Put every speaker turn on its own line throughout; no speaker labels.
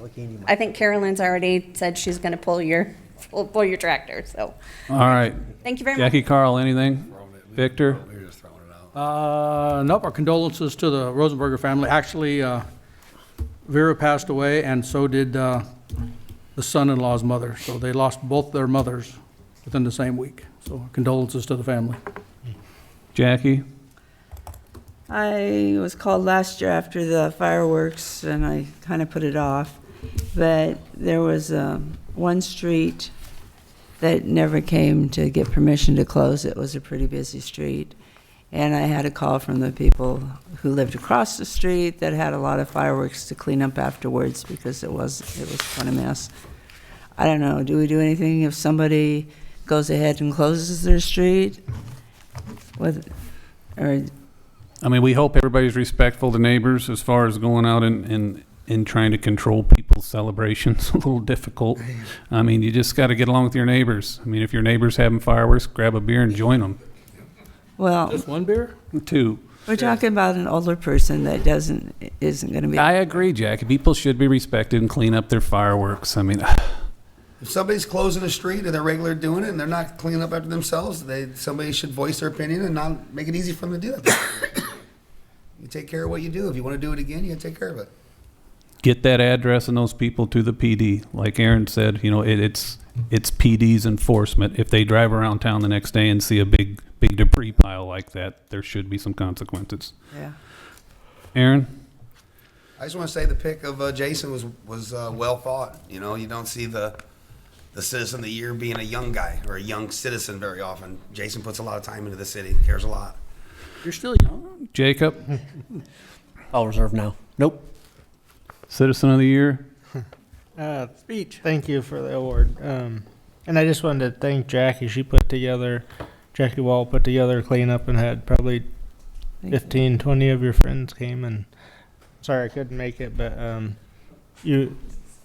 like Andy might.
I think Carolyn's already said she's going to pull your, pull pull your tractor, so,
All right.
thank you very much.
Jackie, Carl, anything? Victor?
We're just throwing it out.
Uh, Nope, our condolences to the Rosenberger family. Actually, uh, Vera passed away, and so did uh, the son-in-law's mother. So they lost both their mothers within the same week. So condolences to the family.
Jackie?
I was called last year after the fireworks, and I kind of put it off. But there was um, one street that never came to get permission to close. It was a pretty busy street. And I had a call from the people who lived across the street that had a lot of fireworks to clean up afterwards because it was, it was quite a mess. I don't know, do we do anything if somebody goes ahead and closes their street? With, or
I mean, we hope everybody's respectful to neighbors as far as going out and, and, and trying to control people's celebrations. a little difficult. I mean, you just got to get along with your neighbors. I mean, if your neighbor's having fireworks, grab a beer and join them.
Well,
Just one beer?
Two.
we're talking about an older person that doesn't, isn't gonna be,
I agree, Jackie. People should be respected and clean up their fireworks. I mean,
If somebody's closing a street and they're regular doing it and they're not cleaning up after themselves, they, somebody should voice their opinion and not make it easy for them to do that. You take care of what you do. If you want to do it again, you gotta take care of it.
get that address and those people to the PD. Like Aaron said, you know, it, it's it's PD's enforcement. If they drive around town the next day and see a big big debris pile like that, there should be some consequences.
yeah.
Aaron,
I just want to say the pick of uh, Jason was was uh, well thought. You know, you don't see the the citizen of the year being a young guy or a young citizen very often. Jason puts a lot of time into the city, cares a lot.
You're still young.
Jacob,
I'll reserve now. Nope.
citizen of the year.
Uh, speech. Thank you for the award. Um, and I just wanted to thank Jackie. She put together, Jackie Wall put together a cleanup and had probably
Thank you.
15, 20 of your friends came. And sorry I couldn't make it, but um, you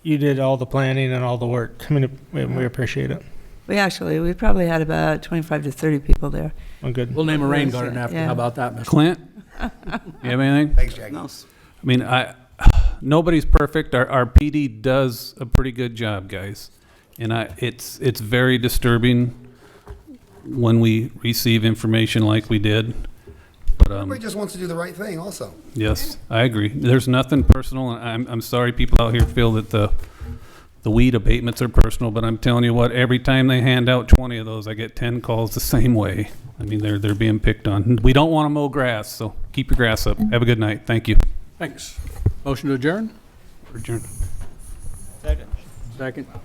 you did all the planning and all the work. I mean, we, we appreciate it.
We actually, we probably had about twenty-five to thirty people there.
Well, good.
We'll name a rain garden after. you.
Yeah.
How about that, Mr.?
Clint, you have anything?
Thanks, Jackie.
I mean, I nobody's perfect. Our, our PD does a pretty good job, guys, and I it's it's very disturbing when we receive information like we did. But um,
Everybody just wants to do the right thing, also.
Yes, I agree. There's nothing personal, and I'm, I'm sorry people out here feel that the, the weed abatements are personal, but I'm telling you what, every time they hand out twenty of those, I get ten calls the same way. I mean, they're, they're being picked on. We don't want to mow grass, so keep your grass up. Have a good night. Thank you.
Thanks. Motion to adjourn?
Adjourn.
Second.